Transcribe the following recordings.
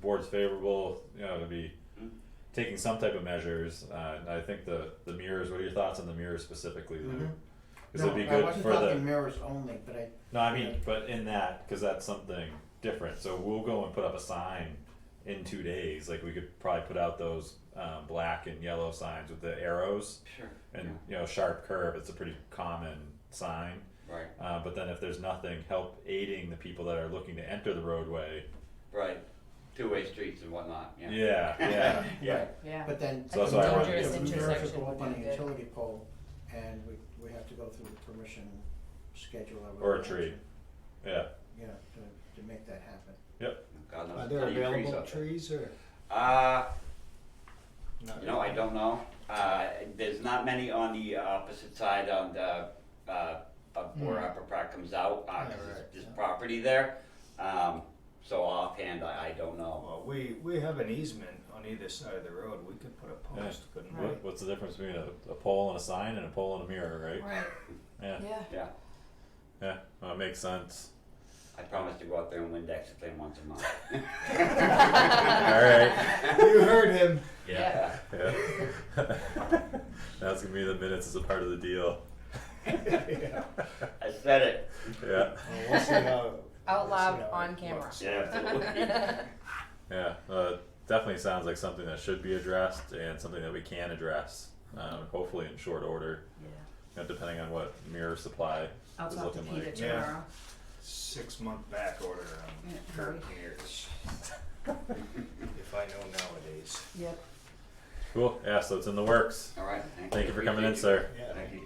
board's favorable, you know, to be Mm-hmm. taking some type of measures, uh, and I think the, the mirrors, what are your thoughts on the mirrors specifically, Lou? Mhm. Cause it'd be No, I good wasn't for the, talking mirrors only, but I, no, I mean, but in that, cause that's something different, so we'll go and put up a sign in two days, like we could probably put out those, um, black and yellow signs with the arrows Sure. and, you know, sharp curve, it's a pretty common sign. yeah, Right, Uh, but then if there's nothing, help aiding the people that are looking to enter the roadway. right. Two-way streets and whatnot, yeah. Yeah, yeah. Yeah, Yeah, but then. So that's why I wanted to- The mirrors Dangerous will go up on intersection would a be good. utility pole and we, we have to go through the permission schedule. I would Or a tree. imagine, yeah. You know, to, to make that happen. God knows. Are a there ton of trees available up there. trees or? Uh, not you know, I really? don't know. Uh, there's not many on the uh, opposite side on the, uh, of where Hmm. Upper Pratt comes out, uh, Yeah, 'cause there's- right, there's yeah. property there. Um, so offhand, I, I don't know. Well, we, we have an easement on either side of the road, we could put a post, couldn't we? What, what's the difference between a, a pole and a sign and a pole and a mirror, right? right, Yeah, yeah. Yeah, yeah. Well, it makes sense. I promise to go out there and Windex it clean once a month. All right. You heard him. Yeah. Yeah. That's gonna be the minutes as a part of the deal. Yeah. I said it. Yeah, Well, we'll see how. Out we'll loud see how on it camera. looks. Yeah, absolutely. yeah. Uh, definitely sounds like something that should be addressed and something that we can address. Um, hopefully in short order, you know, depending on what mirror supply I'll is talk to looking Peter like. Yeah. tomorrow. Six month back order on Yeah, curb right. mirrors. If I know nowadays. Yep. Cool. Yeah. So it's in the works. All right, thank you. Thank you for coming in, Appreciate you. sir. Yeah, Thank you.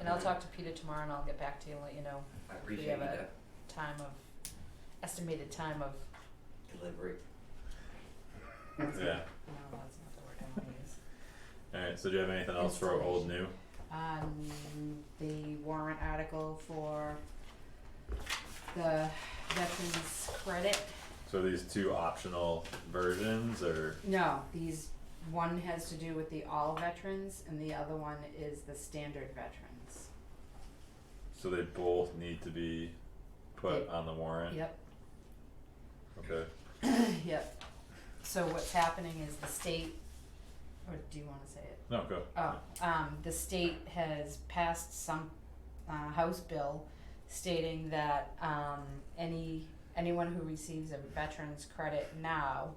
And I'll talk to Peter tomorrow and I'll get back to you and let you know I if we appreciate have you, a time of, estimated time of, the delivery. Yeah. no, that's not the word I wanna use. All right. So do you have anything else for old new? Um, the warrant article for the veterans credit So these two optional versions, or No, these, one has to do with the all veterans and the other one is the standard veterans. so they both need to be put They- on the warrant. Yep, Okay. yep. So what's happening is the state, or do you wanna say it? No, go. Oh, um, the state has passed some, uh, House bill stating that, um, any, anyone who receives a veteran's credit now,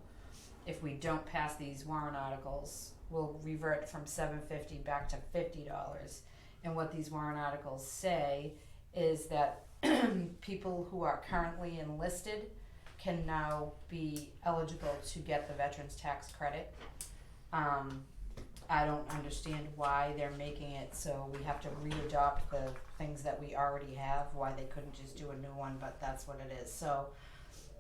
if we don't pass these warrant articles, will revert from seven fifty back to fifty dollars. And what these warrant articles say is that people who are currently enlisted can now be eligible to get the veterans tax credit. Um, I don't understand why they're making it so we have to readopt the things that we already have, why they couldn't just do a new one, but that's what it is, so.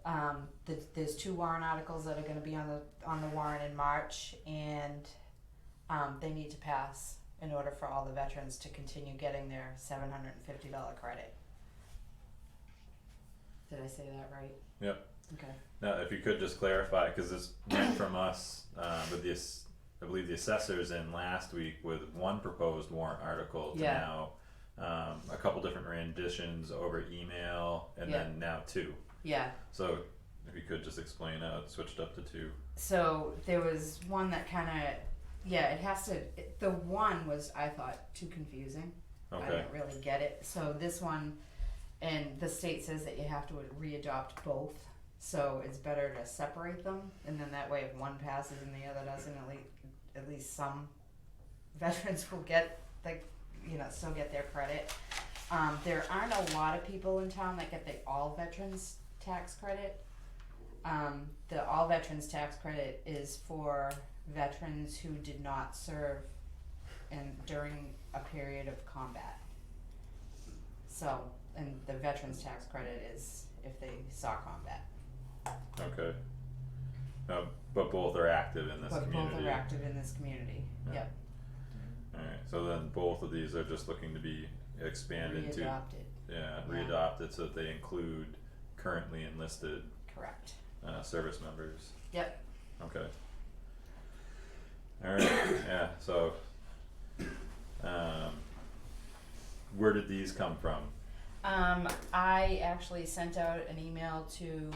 Um, th- there's two warrant articles that are gonna be on the, on the warrant in March, and, um, they need to pass in order for all the veterans to continue getting their seven hundred and fifty dollar credit. Did I say that right? Yep. Okay, Now, if you could just clarify, because this went from us, uh, with the, ass- I believe the assessors in last week with one proposed warrant article to Yeah. now, um, a couple different renditions over email, and Yeah. then now two. yeah, So, if you could just explain how it switched up to two. so there was one that kind of yeah it has to it, the one was i thought too confusing i Okay. didn't really get it so this one and the state says that you have to re-adopt both so it's better to separate them and then that way if one passes and the other doesn't at least, at least some veterans will get the you know still get their credit um, there aren't a lot of people in town that get the all veterans tax credit um, the all veterans tax credit is for veterans who did not serve and during a period of combat. So, and the veterans tax credit is if they saw combat. Okay. Uh, but both are active in this but community. both are active in this community. Yeah. Yep. Alright, so then both of these are just looking to be expanded to, Readopted. yeah, Yeah. readopted so that they include currently enlisted, Correct. uh, service members. Yep. Okay. Alright, yeah, so, um, where did these come from? Um, I actually sent out an email to